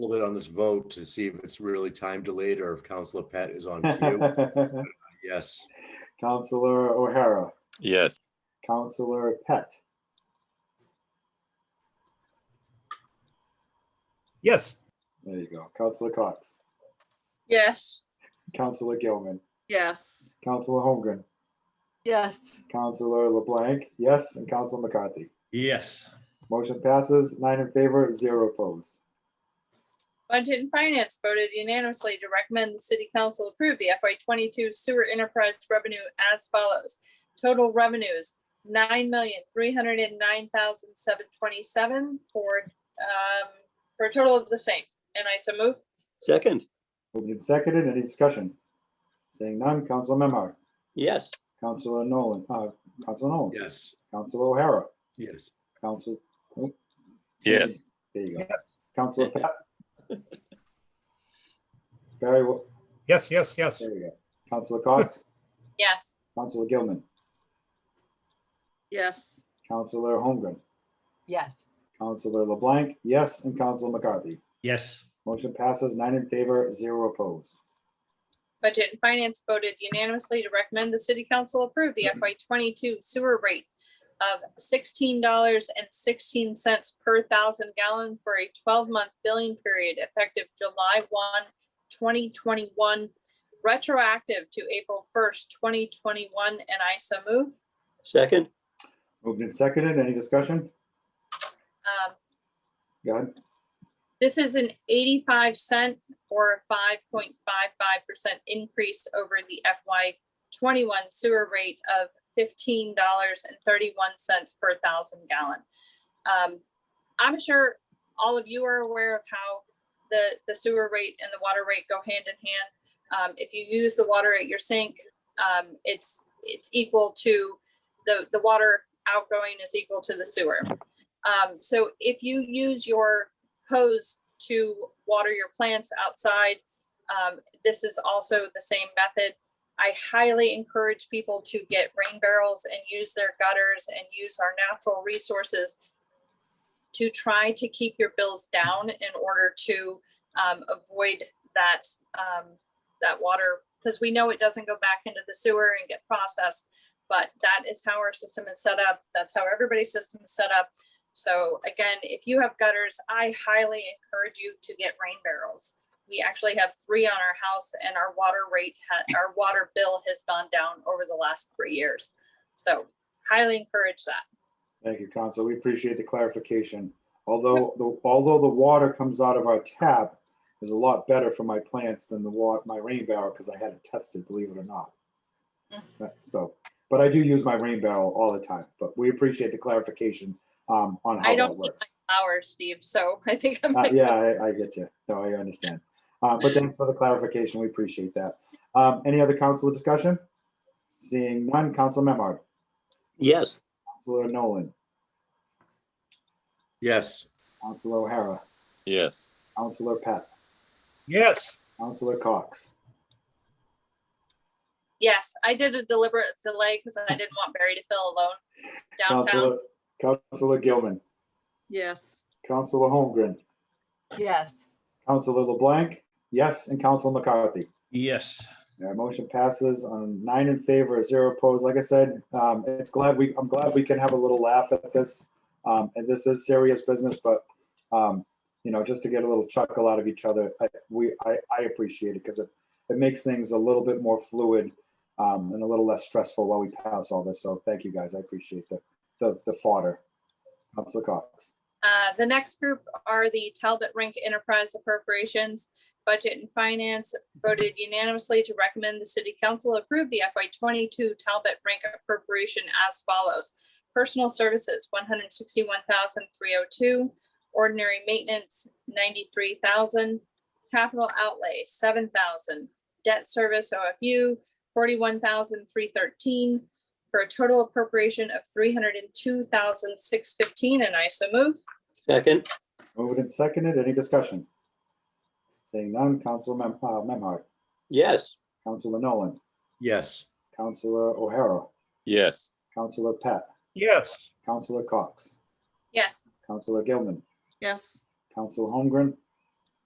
little bit on this vote to see if it's really time delayed or if Counselor Pat is on cue. Counselor Yes, O'Hara, Yes. Counselor Pett, Yes. there you go, Counselor Cox, Yes. Counselor Gilman, Yes. Counselor Holmgren, yes. Counselor LeBlanc, yes, and Counselor McCarthy. Yes. Motion passes, nine in favor, zero opposed. Budget and Finance voted unanimously to recommend the City Council approve the FY twenty-two sewer enterprise revenue as follows. Total revenues, nine million, three hundred and nine thousand, seven twenty-seven for, um, for a total of the same. And I so move. Second, Moving and seconded, any discussion? Saying none, Counselor Memhard, yes. Counselor Nolan, uh, Counselor Nolan, yes, Counselor O'Hara, yes. Counselor. oh, Yes. There you go, Counselor Pat. Barry, Wa- Yes, yes, yes. there we go, Counselor Cox, Yes. Counselor Gilman, Yes. Counselor Holmgren, Yes. Counselor LeBlanc, yes, and Counselor McCarthy. Yes. Motion passes nine in favor, zero opposed. Budget and Finance voted unanimously to recommend the City Council approve the FY twenty-two sewer rate of sixteen dollars and sixteen cents per thousand gallon for a twelve-month billing period effective July 1, 2021, retroactive to April first, twenty twenty-one, and I so move. Second, Moved and seconded, any discussion? Um, Go ahead. This is an eighty-five cent or a five point five five percent increase over the FY twenty-one sewer rate of fifteen dollars and thirty-one cents per thousand gallon. Um, I'm sure all of you are aware of how the, the sewer rate and the water rate go hand in hand. Um, if you use the water at your sink, um, it's, it's equal to, the, the water outgoing is equal to the sewer. Um, so if you use your hose to water your plants outside. Um, this is also the same method. I highly encourage people to get rain barrels and use their gutters and use our natural resources to try to keep your bills down in order to um, avoid that um, that water because we know it doesn't go back into the sewer and get processed. But that is how our system is set up. That's how everybody's system is set up. So again, if you have gutters, I highly encourage you to get rain barrels. We actually have three on our house and our water rate, ha- our water bill has gone down over the last three years. So highly encourage that. Thank you, Council. We appreciate the clarification. Although, the although the water comes out of our tap is a lot better for my plants than the wa, my rain barrel, because I had it tested, believe it or not. Mm. But- So, but I do use my rain barrel all the time, but we appreciate the clarification um, on how I that don't need works. my flowers, Steve, so I think I'm. Uh, Yeah, I, I get you. No, I understand. Uh, but thanks for the clarification. We appreciate that. Um, any other council discussion? Seeing none, Council Memard, yes. Councilor Nolan, Yes, Councilor O'Hara, Yes. Councilor Pat, Yes. Councilor Cox, Yes, I did a deliberate delay because I didn't want Barry to feel alone downtown. Councilor, Councilor Gilman, Yes. Councilor Holmgren, Yes. Councilor LeBlanc, yes, and Council McCarthy. Yes. Our motion passes on nine in favor, zero opposed. Like I said, um, it's glad we, I'm glad we can have a little laugh at this. Um, and this is serious business, but, um, you know, just to get a little chuckle out of each other, I, we, I, I appreciate it because it, it makes things a little bit more fluid, um, and a little less stressful while we pass all this. So thank you guys. I appreciate the, the, the fodder. Council Cox. Uh, the next group are the Talbot Rink Enterprise Appropriations. Budget and Finance voted unanimously to recommend the City Council approve the FY twenty-two Talbot Rink appropriation as follows. Personal Services, 161,302. Ordinary Maintenance, ninety-three thousand. Capital Outlay, seven thousand. Debt Service OFU, forty-one thousand, three thirteen, for a total appropriation of three hundred and two thousand, six fifteen, and I so move. Second, Moved and seconded. Any discussion? Saying none, Council Mem- uh, Memhard, yes. Councilor Nolan, yes. Councilor O'Hara, Yes. Counselor Pat, Yes. Counselor Cox, Yes, Counselor Gilman, Yes. Counselor Holmgren,